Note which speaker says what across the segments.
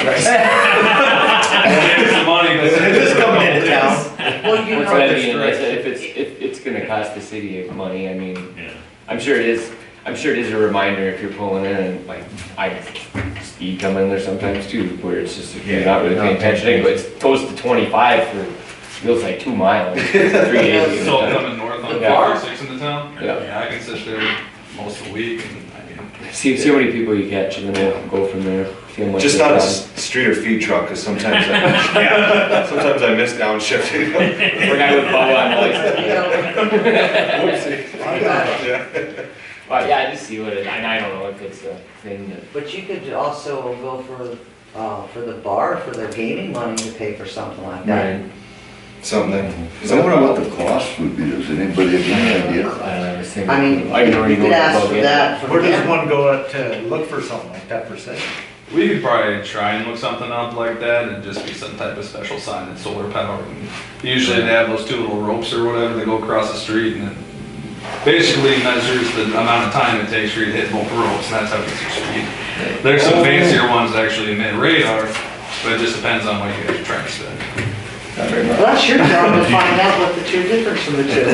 Speaker 1: But I
Speaker 2: Not
Speaker 1: mean,
Speaker 2: this
Speaker 1: it's- if it's, if it's gonna cost the city money, I mean,
Speaker 3: Yeah.
Speaker 1: I'm sure it is, I'm sure it is a reminder if you're pulling in, and like, I speed come in there sometimes too, where it's just, if you're not really
Speaker 2: Yeah,
Speaker 1: paying
Speaker 2: not paying
Speaker 1: attention, anyway, it's goes to twenty-five for, feels like two miles, three eighty.
Speaker 3: So coming north on
Speaker 1: The bar?
Speaker 3: six in the town?
Speaker 1: Yeah.
Speaker 3: I can sit there most of the week and, I mean,
Speaker 1: See, see how many people you catch and then we'll go from there. see how much
Speaker 2: Just
Speaker 1: they
Speaker 2: not a
Speaker 1: cost.
Speaker 2: s- street or feed truck, because sometimes, I- yeah, sometimes I miss downshifting.
Speaker 1: Or guy with bow on license.
Speaker 2: Yeah.
Speaker 1: But yeah, I just see what it, and I don't know if it's a thing that,
Speaker 4: But you could also go for, uh, for the bar, for their gaming money to pay for something like that.
Speaker 2: Something. Is
Speaker 5: I
Speaker 2: that what
Speaker 5: wonder
Speaker 2: I
Speaker 5: what
Speaker 2: want?
Speaker 5: the cost would be, does anybody have any idea?
Speaker 1: I don't know, this thing.
Speaker 4: I mean,
Speaker 1: uh, I can already
Speaker 4: You
Speaker 1: go
Speaker 4: could ask for
Speaker 1: above it.
Speaker 4: that. for
Speaker 6: Where does
Speaker 4: them.
Speaker 6: one go to look for something like that per se?
Speaker 3: we could probably try and look something up like that and just be some type of special sign that's solar powered. And Usually they have those two little ropes or whatever that go across the street and it basically measures the amount of time it takes for you to hit both ropes and that's how it gets your speed. There's some fancier ones that actually emit radar, but it just depends on what you guys are trying to spend.
Speaker 4: Well, that's your job to find out what the two difference from the two.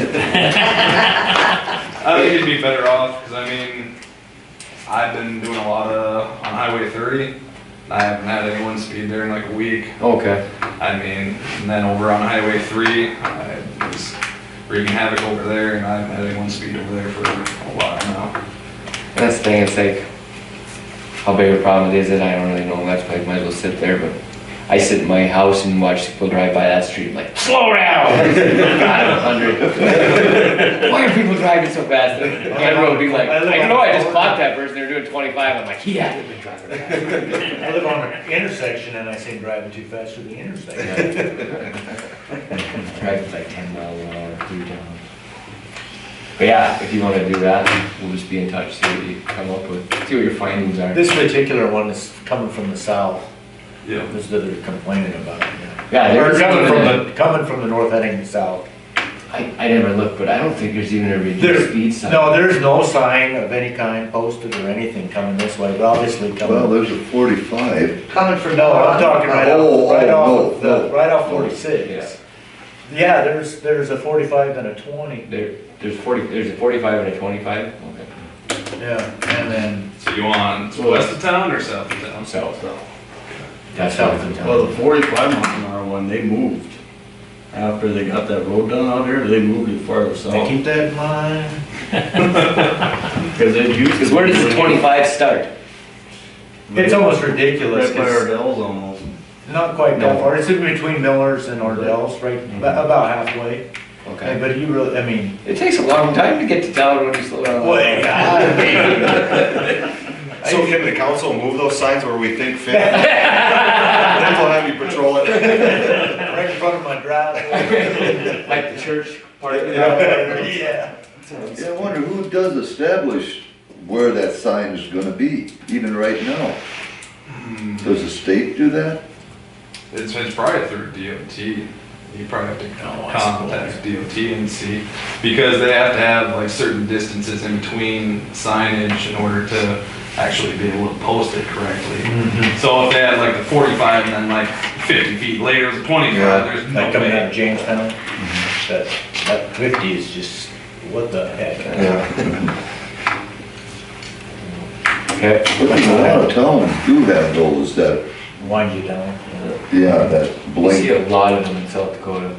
Speaker 3: I think you'd be better off, because I mean, I've been doing a lot of, on Highway 30, and I haven't had anyone speed there in like a week.
Speaker 1: Okay.
Speaker 3: I mean, and then over on Highway 3, I was wreaking havoc over there, and I haven't had anyone speed over there for a while now.
Speaker 1: And That's the thing, it's like, how big a problem it is that I don't really know, that's why I might as well sit there, but I sit in my house and watch people drive by that street like, slow down! Out of a hundred. Why are people driving so fast? And that road would be like, I don't know, I just caught that person, they're doing twenty-five, I'm like, he hasn't been driving that fast."
Speaker 6: I live on an intersection and I see them driving too fast through the intersection.
Speaker 1: Drive like ten miles an hour through town. But yeah, if you wanna do that, we'll just be in touch, see what you come up with, see what your findings are.
Speaker 6: This particular one is coming from the south,
Speaker 3: Yeah.
Speaker 6: this is that they're complaining about. it, yeah.
Speaker 1: Yeah, there
Speaker 6: Or
Speaker 1: is
Speaker 6: coming
Speaker 1: even
Speaker 6: from
Speaker 1: a-
Speaker 6: the, coming from the north heading south.
Speaker 1: I, I never looked, but I don't think there's even a
Speaker 6: There-
Speaker 1: reduced speed sign.
Speaker 6: No, there's no sign of any kind posted or anything coming this way, but obviously
Speaker 5: Well,
Speaker 6: coming.
Speaker 5: there's a forty-five.
Speaker 4: Coming from.
Speaker 6: No, I'm talking right
Speaker 5: Oh,
Speaker 6: off, right
Speaker 5: oh,
Speaker 6: off, of
Speaker 5: no,
Speaker 6: the-
Speaker 5: no,
Speaker 6: right off
Speaker 5: no.
Speaker 6: forty-six. Yeah, there's, there's a forty-five and a twenty,
Speaker 1: There, there's forty, there's a forty-five and a twenty-five? Okay.
Speaker 6: yeah, and then
Speaker 3: So you want west of town or south of town?
Speaker 1: South. That's
Speaker 6: that's out
Speaker 1: south.
Speaker 6: of town.
Speaker 7: Well, the forty-five mile an hour one, they moved. After they got that road done out here, they moved it farther
Speaker 1: Oh.
Speaker 6: They
Speaker 7: south.
Speaker 6: keep that in mind.
Speaker 7: Because they used. to
Speaker 1: Cause where does the
Speaker 7: be-
Speaker 1: twenty-five start?
Speaker 6: It's almost
Speaker 7: Right
Speaker 6: ridiculous.
Speaker 7: by
Speaker 6: It's
Speaker 7: Ardell's almost.
Speaker 6: not quite that far. It's in between Miller's and Ordell's, right, about about halfway.
Speaker 1: Mm-hmm. Okay.
Speaker 6: But you really, I mean,
Speaker 1: It takes a long time to get to town when you slow down.
Speaker 6: well, yeah.
Speaker 2: So can the council move those signs where we think fit? Then we'll have you patrol it.
Speaker 6: right in front of my driveway.
Speaker 1: Like the church part of it.
Speaker 6: Yeah.
Speaker 5: Yeah, I wonder who does establish where that sign is gonna be, even right now? Does the state do that?
Speaker 3: It's, it's probably through DOT. You probably have to contact DOT and see, because they have to have like certain distances in between signage in order to actually be able to post it correctly. So if they had like the forty-five and then like fifty feet later, it's
Speaker 2: Yeah,
Speaker 3: twenty-five, there's no
Speaker 6: Like coming out
Speaker 3: way.
Speaker 6: of Jamestown,
Speaker 1: Mm-hmm.
Speaker 6: that, that fifty is just, what the heck?
Speaker 2: Yeah.
Speaker 1: Okay.
Speaker 5: But a lot of towns do have those that,
Speaker 6: Wind you down.
Speaker 5: yeah, that
Speaker 1: We see
Speaker 5: blank.
Speaker 1: a lot of them in South Dakota.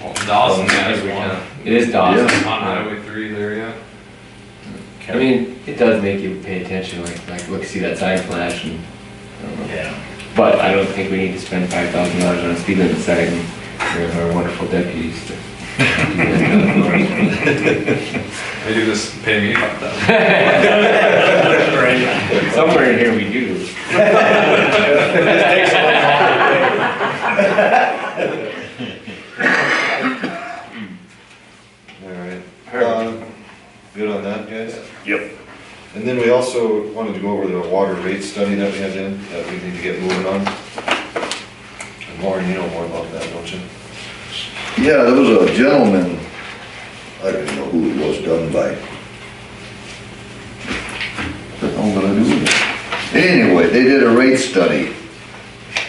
Speaker 3: Well, Dawson has
Speaker 1: Every town.
Speaker 3: one
Speaker 1: It is Dawson.
Speaker 3: on Highway three there, yeah.
Speaker 1: I mean, it does make you pay attention, like, like, look, see that sign flash and, I don't know.
Speaker 6: Yeah.
Speaker 1: But I don't think we need to spend five thousand dollars on a speed limit sign. We have our wonderful deputies to.
Speaker 3: They do this, pay me about that.
Speaker 1: Somewhere in here we do.
Speaker 6: This takes a long time.
Speaker 2: Alright. Um, Good on that, guys? Yep. And then we also wanted to go over the water rate study that we had in, that we need to get moving on. And Lauren, you know more about that, don't you?
Speaker 5: Yeah, there was a gentleman, I don't know who it was done by. What the hell did I do with it? Anyway, they did a rate study